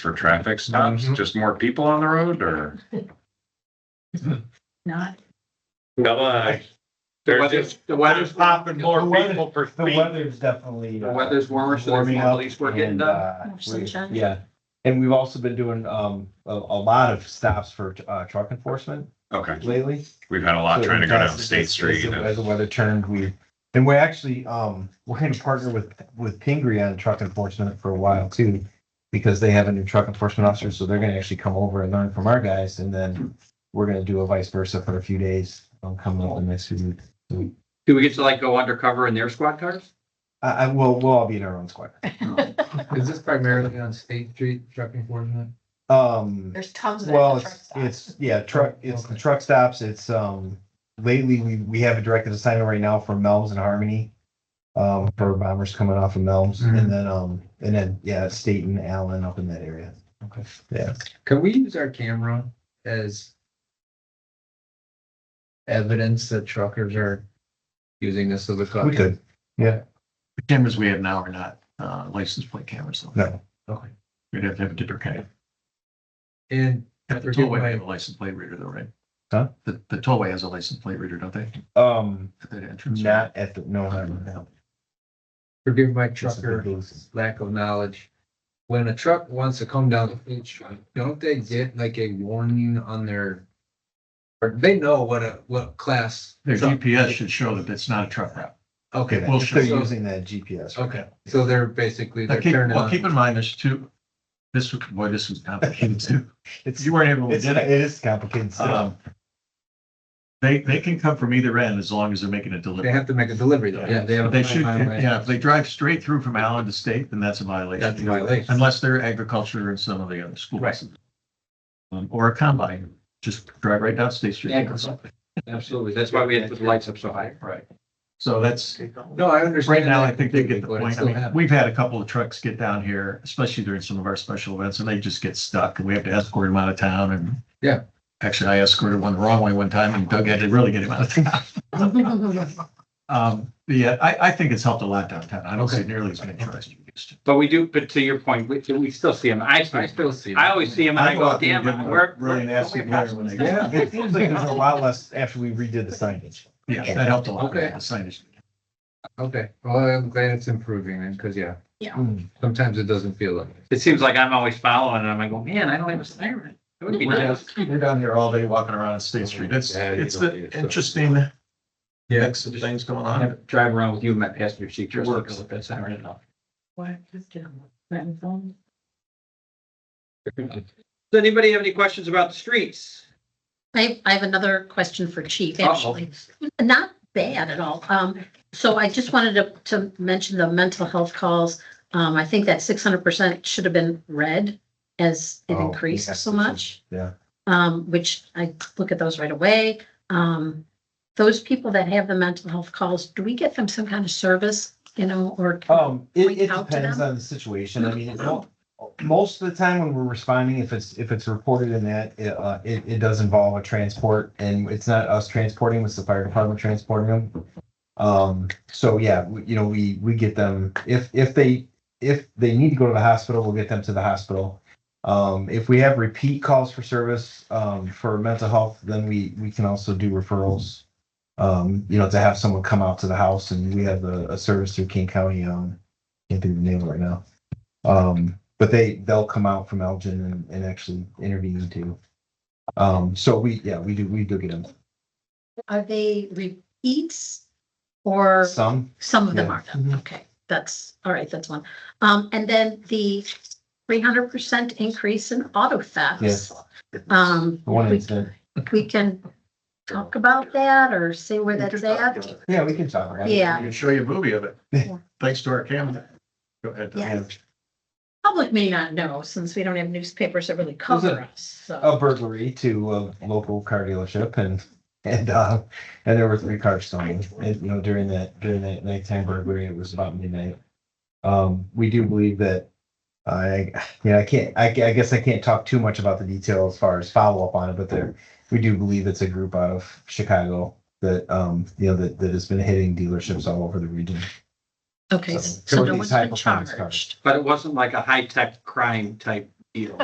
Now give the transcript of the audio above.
for traffic stops, Mhm. just more people on the road or? Not, Come on. The There's weather's, just the weather's popping more more people per The feet. weather's definitely. The uh, weather's warmer, so there's warming more up leaves we're getting and, done. uh, More we- sunshine. Yeah, and we've also been doing, um, a, a lot of stops for, uh, truck enforcement Okay, lately. we've had a lot So trying to go down as- State as- Street. As the- as the and- weather turned, we, and we're actually, um, we're gonna partner with, with Pingree on truck enforcement for a while too. Because they have a new truck enforcement officer, so they're gonna actually come over and learn from our guys, and then we're gonna do a vice versa for a few days, um, coming up in the next few weeks. Do we get to like go undercover in their squad cars? I, I, we'll, we'll all be in our own squad. Is this primarily on State Street truck enforcement? Um. There's tons of it. Well, at the truck it's, stop. it's, yeah, truck, it's the truck stops, it's, um, lately, we, we have a directed assignment right now for Melms and Harmony. Um, for bombers coming off of Melms, Mhm. and then, um, and then, yeah, Staten, Allen, up in that area. Okay. Yeah, Can we use our camera as evidence that truckers are using this as a cut? we could, The cameras we have now are not uh, license plate cameras. though. no, Okay. We'd have to have a different kind. And The Forget tollway my- have a license plate reader though, right? Huh? The, the tollway has a license plate reader, don't they? um, At that entrance? not at the, no, not right now. forgive my Just at the trucker booth. lack of knowledge. When a truck wants to come down the State Street, don't they get like a warning on their? Or they know what a, what class. Their truck- GPS should show that it's not a truck route. Okay, It will show. They're so- using that GPS. Oh, right okay, so they're basically, Now, they're keep, turning well, keep on. in mind, there's two, this, was- boy, this was complicated too. now. It's, You weren't able to it's, get it it. is complicated stuff. Um, They, they can come from either end as long as they're making a delivery. They have to make a delivery though, yeah, Yeah, they have. a They should, mile away. yeah, if they drive straight through from Allen to State, then that's a violation. That's a violation. Unless they're agriculture and some of the other schools. Right. Um, or a combine, just drive right down State Street. Agriculture. Absolutely. That's why we had to put the lights up so high. Right. So that's, No, I understand. right now, that I think they get the completely, but it point. I still mean, happens. we've had a couple of trucks get down here, especially during some of our special events, and they just get stuck and we have to escort them out of town and. Yeah. Actually, I escorted one the wrong way one time and Doug had to really get him out of town. Um, but yeah, I, I think it's helped a lot downtown. I don't see Okay. nearly as many trucks you used to. But we do, but to your point, we, we still see them. I, I I still see. I always see them and I go, out there damn, and give them a we're. Really we're- nasty glare when they. Yeah, it seems like there's a lot less after we redid the signage. Yeah, that helped a lot. Okay. The signage. Okay, well, I'm glad it's improving then, because yeah, Mm. sometimes it doesn't feel like. it. It seems like I'm always following and I'm like, "Oh, man, I don't have a siren. It would be We're nice. down- we're down here all day walking around State Street. It's, Yeah, you it's don't need an it, so. interesting Yeah. mix of things going I on. have to Drive around with you in my passenger seat just to Works. go with that siren enough. Why, just, um, Renton phone. Does anybody have any questions about the streets? I, I have another question for Chief, Uh-oh. actually. Not bad at all. Um, so I just wanted to, to mention the mental health calls. Um, I think that six hundred percent should have been red as it Oh, increased yes, so it should. much. Yeah. Um, which I look at those right away. Um, those people that have the mental health calls, do we get them some kind of service, you know, or? Um, it, point it out to depends them? on the situation. I mean, it don't- most of the time when we're responding, if it's, if it's reported in that, it, uh, it, it does involve a transport and it's not us transporting, it's the fire department transporting them. Um, so yeah, we- you know, we, we get them, if, if they, if they need to go to the hospital, we'll get them to the hospital. Um, if we have repeat calls for service, um, for mental health, then we, we can also do referrals. Um, you know, to have someone come out to the house and we have a, a service through King County, um, can't think of the name right now. Um, but they, they'll come out from Elgin and, and actually intervene too. Um, so we, yeah, we do, we do get them. Are they repeats? Or? Some, Some of them Yeah. Mm-hmm. are, though. okay, that's, all right, that's one. Um, and then the three hundred percent increase in auto Yes. thefts. Um, one we- incident. we can talk about that or say where that's at. Yeah, we can talk about it. I Yeah, can show you a movie of it. Yeah. Thanks to our camera. Go ahead. Yes. public may not know, since we don't have newspapers that really cover us, so. A burglary to a local car dealership and, and, uh, and there were three cars stolen. And, you know, during that, during that nighttime burglary, it was about midnight. Um, we do believe that, I, yeah, I can't, I, I guess I can't talk too much about the detail as far as follow-up on it, but there, we do believe it's a group out of Chicago that, um, you know, that, that has been hitting dealerships all over the region. Okay, so- so so no these one's been high-performance cars. charged. But it wasn't like a high-tech crime type deal.